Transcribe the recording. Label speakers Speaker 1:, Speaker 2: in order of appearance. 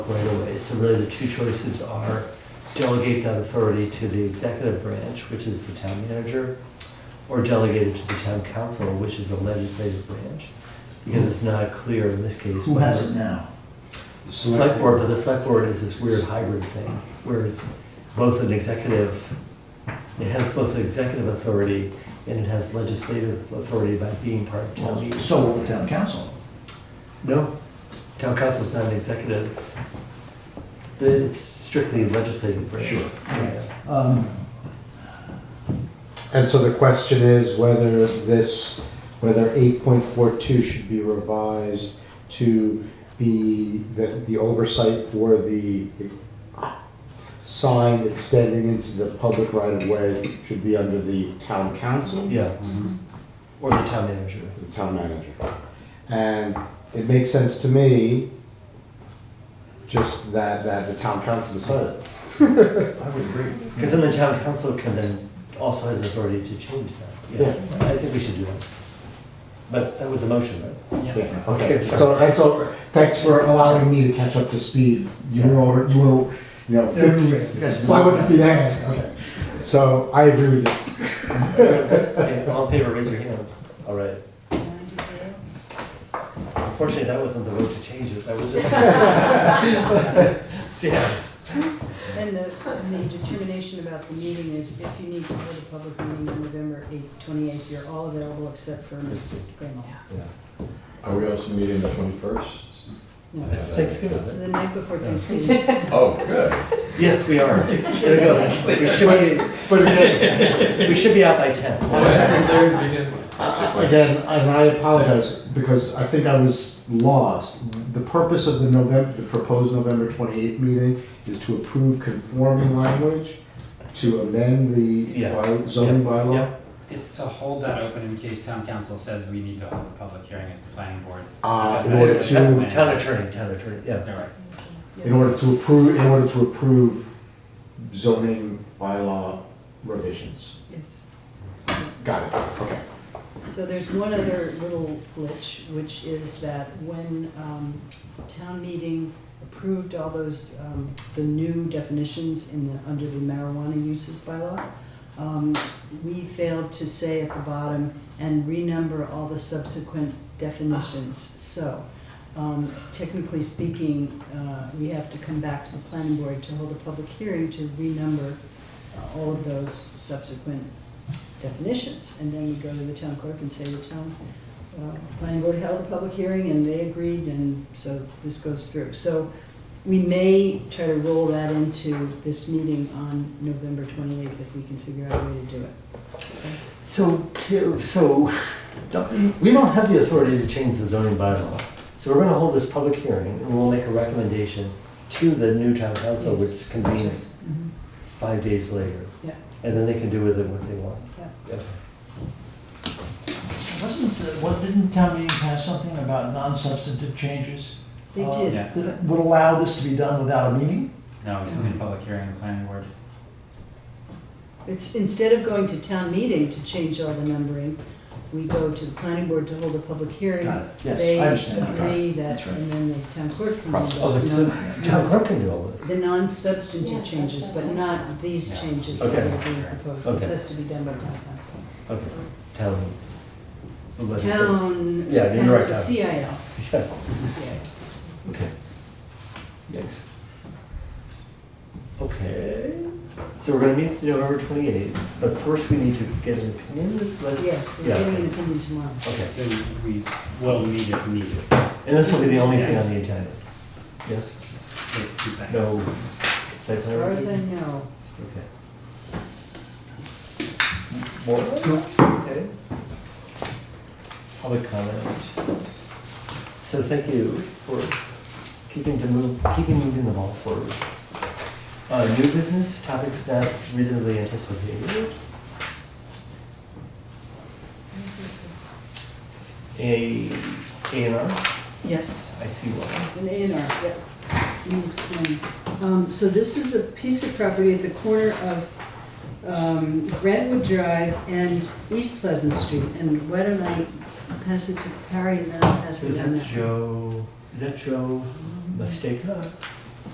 Speaker 1: right of ways. So really, the two choices are delegate that authority to the executive branch, which is the town manager, or delegate it to the town council, which is the legislative branch. Because it's not clear in this case.
Speaker 2: Who
Speaker 1: whether-
Speaker 2: has it now?
Speaker 1: Select board, but the select board is this weird hybrid thing, where it's both an executive, it has both executive authority and it has legislative authority by being part of town meeting.
Speaker 2: So will the town council.
Speaker 1: No, town council's not an executive. It's strictly legislative branch.
Speaker 2: Sure.
Speaker 1: Yeah.
Speaker 2: Um,
Speaker 3: And so the question is whether this, whether 8.42 should be revised to be the, the oversight for the sign extending into the public right of way should be under the town council?
Speaker 1: Yeah. Or the town manager.
Speaker 3: the town manager. And it makes sense to me, just that, that the town council decided.
Speaker 2: I would agree.
Speaker 1: Because then the town council can then, also has authority to change that. Yeah, I think we should do that. But that was a motion, right?
Speaker 3: Yeah.
Speaker 1: Okay, I'm sorry.
Speaker 3: So that's all, thanks for allowing me to catch up to speed. You were, over- you were, you know,
Speaker 2: Yes.
Speaker 3: fifty, why wouldn't it be that? Okay. So I agree with you.
Speaker 1: Okay, All in favor, raise your hand. All right. Unfortunately, that wasn't the vote to change it, that was just. Yeah.
Speaker 4: And the, and the determination about the meeting is if you need to hold a public meeting on November eighth, twenty-eighth, you're all available except for Ms. Graham.
Speaker 5: Are we also meeting the twenty-first?
Speaker 4: No,
Speaker 1: It's Thanksgiving.
Speaker 4: it's the night before Thanksgiving.
Speaker 5: Oh, good.
Speaker 1: Yes, we are. There we go. We should be, we're good. we should be out by ten.
Speaker 3: Again, and I apologize, because I think I was lost. The purpose of the November, the proposed November twenty-eighth meeting is to approve conforming language, to amend the
Speaker 1: Yes.
Speaker 3: by- zoning bylaw.
Speaker 1: Yep.
Speaker 6: It's to hold that open in case town council says we need to hold the public hearing as the planning board.
Speaker 3: Uh, in order to,
Speaker 1: Town attorney, town attorney, yeah.
Speaker 6: All right.
Speaker 3: in order to approve, in order to approve zoning bylaw revisions.
Speaker 4: Yes.
Speaker 3: Got it, okay.
Speaker 4: So there's one other little glitch, which is that when um, town meeting approved all those, um, the new definitions in the, under the marijuana uses bylaw, um, we failed to say at the bottom and renumber all the subsequent definitions. So um, technically speaking, uh, we have to come back to the planning board to hold a public hearing to renumber uh, all of those subsequent definitions, and then we go to the town clerk and say the town uh, planning board held a public hearing and they agreed, and so this goes through. So we may try to roll that into this meeting on November twenty-eighth if we can figure out a way to do it.
Speaker 1: So, ca- so, don't- we don't have the authority to change the zoning bylaw. So we're gonna hold this public hearing and we'll make a recommendation to the new town council, which
Speaker 4: Yes, that's
Speaker 1: convenes five days later.
Speaker 4: Yeah.
Speaker 1: And then they can do with it what they want.
Speaker 4: Yeah.
Speaker 1: Okay.
Speaker 2: Wasn't, the- what, didn't town meeting pass something about non-substantive changes?
Speaker 4: They
Speaker 2: Uh,
Speaker 4: did.
Speaker 6: Yeah.
Speaker 2: That would allow this to be done without a meeting?
Speaker 6: No, we still need a public hearing and planning board.
Speaker 4: It's, instead of going to town meeting to change all the numbering, we go to the planning board to hold a public hearing.
Speaker 2: Got it. Yes, I understand. that.
Speaker 4: They agree that,
Speaker 2: That's right.
Speaker 4: and then the town clerk can let
Speaker 1: Oh,
Speaker 4: us
Speaker 1: so
Speaker 4: know.
Speaker 1: the town clerk can do all this.
Speaker 4: The non-substantive
Speaker 7: Yeah,
Speaker 4: changes,
Speaker 7: that's
Speaker 4: but
Speaker 7: okay.
Speaker 4: not these
Speaker 6: Yeah.
Speaker 4: changes
Speaker 1: Okay.
Speaker 4: that are being proposed. This
Speaker 1: Okay.
Speaker 4: has to be done by town council.
Speaker 1: Okay, town. the legislature.
Speaker 4: Town
Speaker 1: Yeah, you're right,
Speaker 4: council,
Speaker 1: town.
Speaker 4: CIL,
Speaker 1: Yeah,
Speaker 4: CIL.
Speaker 1: okay. Yikes. Okay, so we're gonna meet November twenty-eighth, but first we need to get an opinion. Let's-
Speaker 4: Yes, we're
Speaker 1: Yeah,
Speaker 4: getting
Speaker 1: okay.
Speaker 4: an opinion tomorrow.
Speaker 1: Okay,
Speaker 6: So we will need if needed,
Speaker 1: and this will be the only thing on the agenda. Yes,
Speaker 6: those two things.
Speaker 1: no. site
Speaker 4: As
Speaker 1: plan
Speaker 4: far as I
Speaker 1: review?
Speaker 4: know,
Speaker 1: Okay. More? Okay. Public comment. So thank you for keeping to move, keeping moving the ball forward. Uh, new business, topics not reasonably anticipated. A, A and R,
Speaker 4: yes.
Speaker 1: I see one.
Speaker 4: An A and R, yep. Let me explain. Um, So this is a piece of property at the corner of um, Redwood Drive and East Pleasant Street. And why don't I pass it to Perry and then I'll pass it
Speaker 1: Is
Speaker 4: down
Speaker 1: that
Speaker 4: there.
Speaker 1: Joe, is that Joe Mistake?